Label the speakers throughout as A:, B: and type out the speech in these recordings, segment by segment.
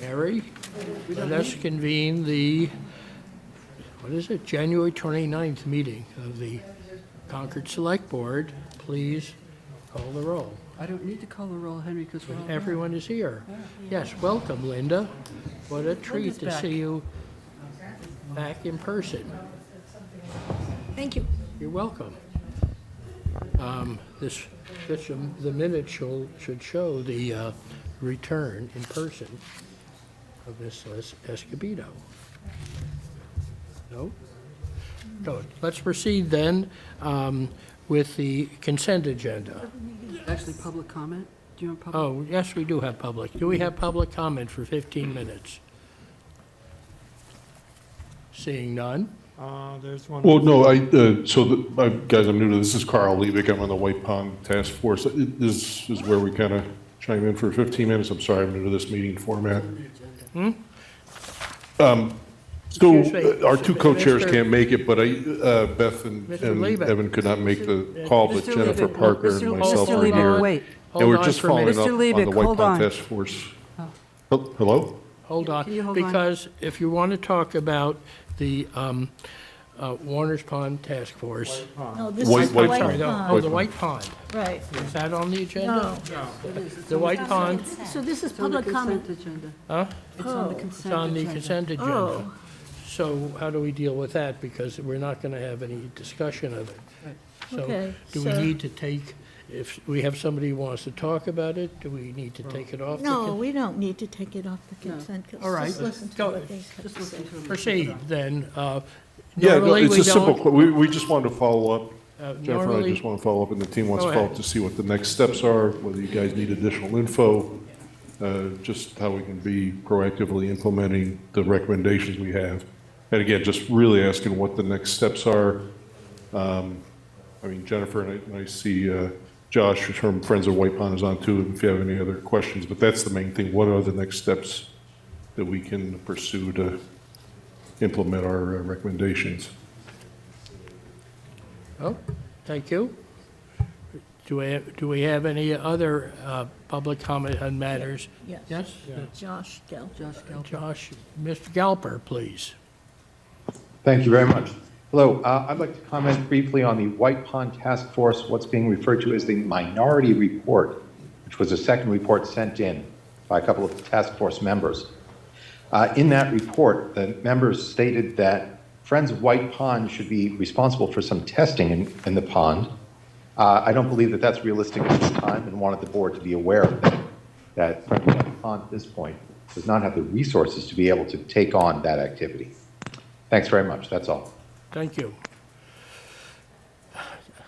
A: Mary, let's convene the, what is it, January 29th meeting of the Concord Select Board. Please call the roll.
B: I don't need to call the roll, Henry, because we're all.
A: Mm-hmm. Everyone is here. Yes, welcome, Linda. What a treat
B: Linda's
A: to
B: back.
A: see you back in person.
C: Thank you.
A: You're welcome. Um, This, this, um, the minutes should, should show the uh, return in person of Ms. Es- Escobedo. No? No, let's proceed then um, with the consent agenda.
B: Actually, public comment? Do you want public?
A: Oh, yes, we do have public. Do we have public comment for 15 minutes? Seeing none?
D: Uh, there's one.
E: Well, no, I, uh, so, the- I- guys, I'm new to this, this is Carl Levick, I'm on the White Pond Task Force. It- This is where we kind of chime in for 15 minutes, I'm sorry, I'm new to this meeting format. Um, So,
A: Hmm? Excuse me.
E: uh, our two co-chairs
A: Mr.
E: can't make it, but I, uh, Beth and
A: Mr.
E: and
A: Levick.
E: Evan could not make the call, but
B: Mr.
E: Jennifer
B: Levick,
E: Parker
B: Mr.
E: and
B: Levick,
E: myself
B: Mr.
E: are
B: Levick,
E: here.
B: wait.
A: Hold
E: And we're
A: on
E: just
A: for a minute.
E: following
B: Mr.
E: up on
B: Levick,
E: the White
B: hold
E: Pond
B: on.
E: Task Force.
A: Oh.
E: Hel- Hello?
A: Hold on,
B: Can you hold on?
A: because if you want to talk about the um, uh, Warner's Pond Task Force.
C: No, this
E: White-
C: is the
E: white
C: White
A: Sorry,
E: pond.
A: no, oh,
C: Pond.
A: the White Pond.
C: Right.
A: Is that on the agenda?
C: No.
A: The White Pond,
C: So this is
B: It's on the
C: public comment.
B: consent agenda.
A: huh?
B: It's on the
C: Oh.
A: It's on
B: consent
A: the
B: agenda.
A: consent agenda.
C: Oh.
A: So how do we deal with that? Because we're not going to have any discussion of it. So
C: Okay,
A: do we
C: so-
A: need to take, if we have somebody who wants to talk about it, do we need to take it off? the
C: No,
A: con-
C: we don't need to take it off the consent. 'cause
A: All right,
C: Just listen to
A: go-
C: what they have
B: Just
C: to say.
B: listen to him.
A: Proceed, then. Uh,
E: Yeah, no,
A: normally
E: it's
A: we
E: a simple,
A: don't-
E: que- we, we just wanted to follow up
A: uh,
E: Jennifer, I
A: normally-
E: just want to follow up, and the team wants
A: Go
E: to follow
A: ahead.
E: up to see what the next steps are, whether you guys need additional info, uh, just how we can be proactively implementing the recommendations we have. And again, just really asking what the next steps are. Um, I mean, Jennifer, and I- and I see uh, Josh from Friends of White Pond is on too, if you have any other questions, but that's the main thing. What are the next steps that we can pursue to implement our uh, recommendations?
A: Oh, thank you. Do we, do we have any other uh, public comment on matters?
C: Yes.
A: Yes?
C: Josh Gell.
B: Josh Gelb.
A: Josh, Mr. Galper, please.
F: Thank you very much. Hello, uh, I'd like to comment briefly on the White Pond Task Force, what's being referred to as the Minority Report, which was a second report sent in by a couple of the task force members. Uh, In that report, the members stated that Friends of White Pond should be responsible for some testing in, in the pond. Uh, I don't believe that that's realistic at this time and wanted the board to be aware of that, that Friends of White Pond at this point does not have the resources to be able to take on that activity. Thanks very much, that's all.
A: Thank you.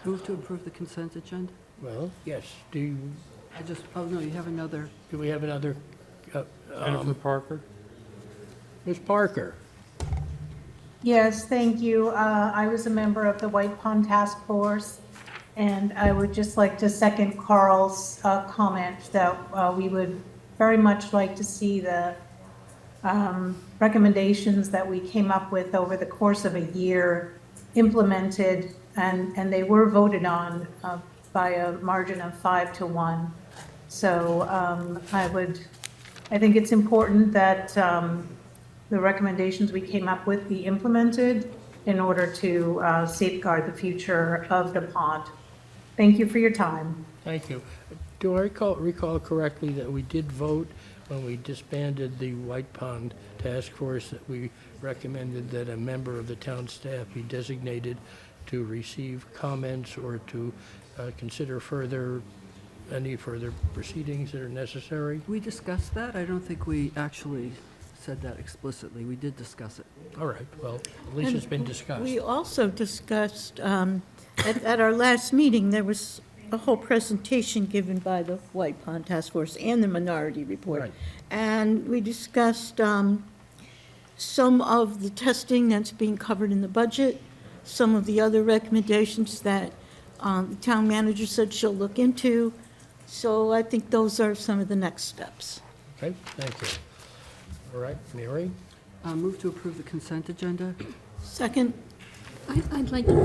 B: Move to approve the consent agenda?
A: Well, yes, do, you-
B: I just, oh, no, you have another.
A: do we have another, uh,
D: Jennifer Parker.
A: Ms. Parker?
G: Yes, thank you. Uh, I was a member of the White Pond Task Force, and I would just like to second Carl's uh, comment that uh, we would very much like to see the um, recommendations that we came up with over the course of a year implemented, and, and they were voted on uh, by a margin of five to one. So um, I would, I think it's important that um, the recommendations we came up with be implemented in order to uh, safeguard the future of the pond. Thank you for your time.
A: Thank you. Do I recall, recall correctly that we did vote when we disbanded the White Pond Task Force that we recommended that a member of the town staff be designated to receive comments or to uh, consider further, any further proceedings that are necessary?
B: We discussed that? I don't think we actually said that explicitly. We did discuss it.
A: All right, well, at least it's been discussed.
C: We also discussed, um, at, at our last meeting, there was a whole presentation given by the White Pond Task Force and the Minority Report.
A: Right.
C: And we discussed, um, some of the testing that's being covered in the budget, some of the other recommendations that, um, the town manager said she'll look into. So I think those are some of the next steps.
A: Okay, thank you. All right, Mary?
B: Uh, Move to approve the consent agenda?
C: Second?
H: I- I'd like to